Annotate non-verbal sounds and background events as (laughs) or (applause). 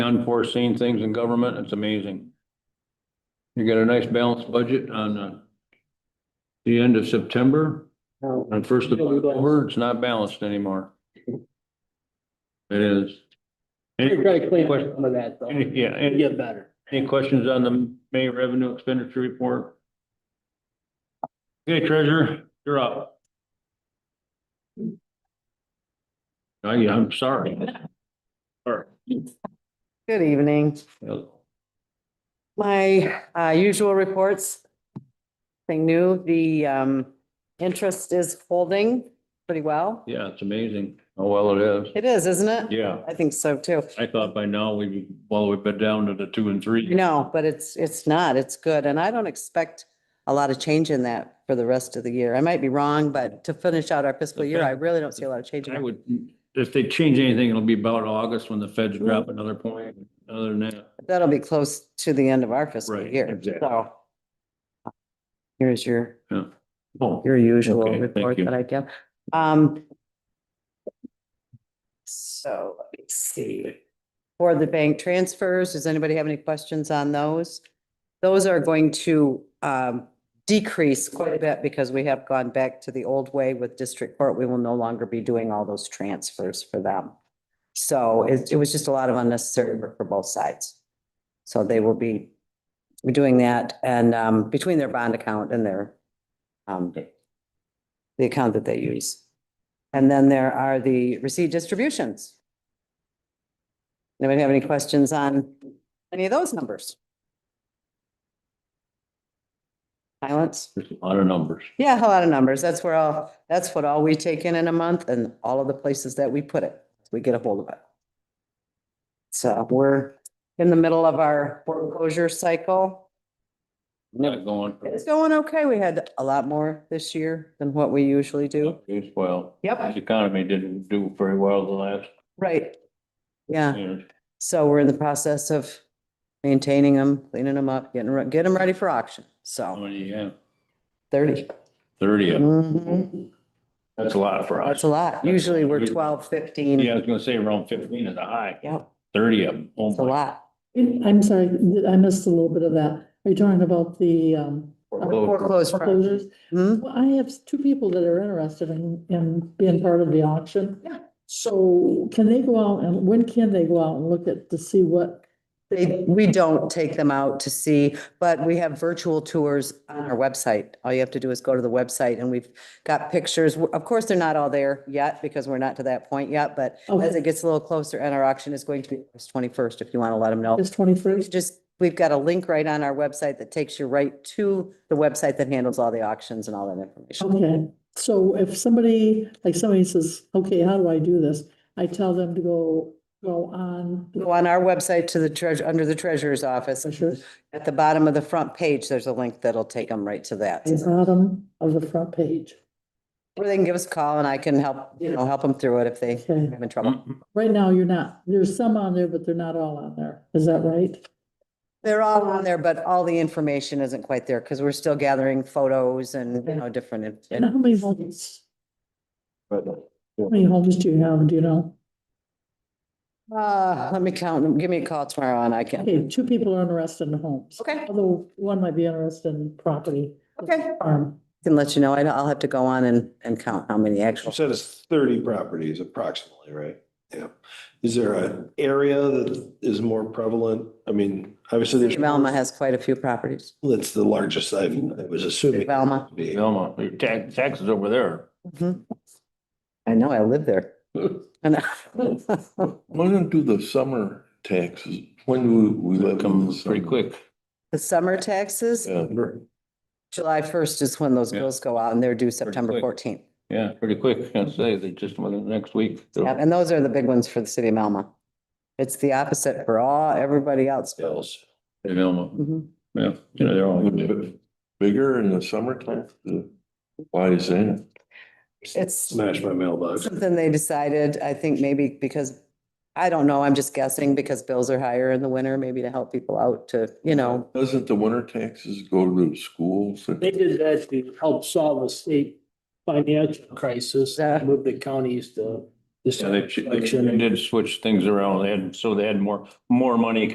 unforeseen things in government, it's amazing. You got a nice balanced budget on uh, the end of September, No, on first of October, it's not balanced anymore. It is. You're Any- trying to clean up some of that though. any- Yeah, And any, Get better. any questions on the May revenue expenditure report? Okay, treasurer, you're up. I, I'm sorry. Sorry. Good evening. My uh, usual reports. Thing new, the um, interest is holding pretty well. Yeah, it's amazing how well it is. It is, isn't it? Yeah, I think so too. I thought by now we, well, we've been down to the two and three. No, but it's, it's not. It's good. And I don't expect a lot of change in that for the rest of the year. I might be wrong, but to finish out our fiscal year, I really don't see a lot of change. in I it. would, if they change anything, it'll be about August when the feds drop another point. Other than that, That'll be close to the end of our fiscal Right, year, exactly. so. Here's your oh, your usual Okay, thank report you. that I give. Um. So let me see. For the bank transfers, does anybody have any questions on those? Those are going to um decrease quite a bit because we have gone back to the old way with district court. We will no longer be doing all those transfers for them. So it it was just a lot of unnecessary work for both sides. So they will be doing that and um between their bond account and their um, the account that they use. And then there are the receipt distributions. Anybody have any questions on any of those numbers? Silence? there's a lot of numbers. Yeah, a lot of numbers. That's where all, that's what all we take in in a month and all of the places that we put it, we get a hold of it. So we're in the middle of our foreclosure cycle. Not going. It's going okay. We had a lot more this year than what we usually do. Well, Yep, the economy didn't do very well the last right. Yeah, year. so we're in the process of maintaining them, cleaning them up, getting, re- getting them ready for auction. How So many do you have? thirty. Thirty. of them. Mhm. That's a lot for That's us. a lot. Usually we're twelve, Yeah, I fifteen. was gonna say around fifteen is a high, Yep, thirty of them. Oh it's a my. lot. I'm sorry, I missed a little bit of that. Are you talking about the um, Foreclosed. property. foreclosures? Mhm. Well, I have two people that are interested in, in being part of the auction. Yeah. So can they go out and when can they go out and look at to see what? They, we don't take them out to see, but we have virtual tours on our website. All you have to do is go to the website and we've got pictures. Of course, they're not all there yet because we're not to that point yet, but oh, as it gets a little closer and our auction is going to be August twenty-first, if you want to let them know. It's It's twenty-first? just, we've got a link right on our website that takes you right to the website that handles all the auctions and all that information. Okay, so if somebody, like somebody says, okay, how do I do this? I tell them to go, go on. Go on our website to the treasure, under the treasurer's office. Pictures, At the bottom of the front page, there's a link that'll take them right to that. the bottom of the front page. Or they can give us a call and I can help, you know, help them through it if they Okay. have in Mm-hmm. trouble. Right now, you're not, there's some on there, but they're not all on there. Is that right? They're all on there, but all the information isn't quite there because we're still gathering photos and, you know, different. in- And how in- many homes, how many homes do you have, do you know? Uh, let me count them. Give me a call tomorrow and I can. Okay, two people are interested in homes. Okay. Although one might be interested in property, um, Okay. farm. Can let you know. I- I'll have to go on and, and count how many actual. You said it's thirty properties approximately, right? Yeah. Is there an area that is more prevalent? I mean, obviously City there's. of Alma has quite a few properties. That's the largest I've, I was assuming. City of Alma. it'd be. Velma, your tax, taxes over (laughs) there. I know, I live there. And Why don't do the summer taxes? When do we They let them come pretty quick. (laughs) The summer taxes, Yeah, July first is when those Yeah. bills go out and they're due September quick. fourteenth. Yeah, pretty quick. I'd say they just went next week. And those are the big ones for the city of Alma. It's the opposite for all, everybody else. Bills. Velma, Mhm. yeah, you know, they're all. Would it Bigger in the summertime? Why is that? It's Smash my mailbox. something they decided, I think maybe because, I don't know, I'm just guessing because bills are higher in the winter, maybe to help people out to, you know, Doesn't the winter taxes go to the schools? They did that to help solve the state financial crisis, Yeah. move the counties to This Yeah, they, they did switch things around. They had, so they had more, more money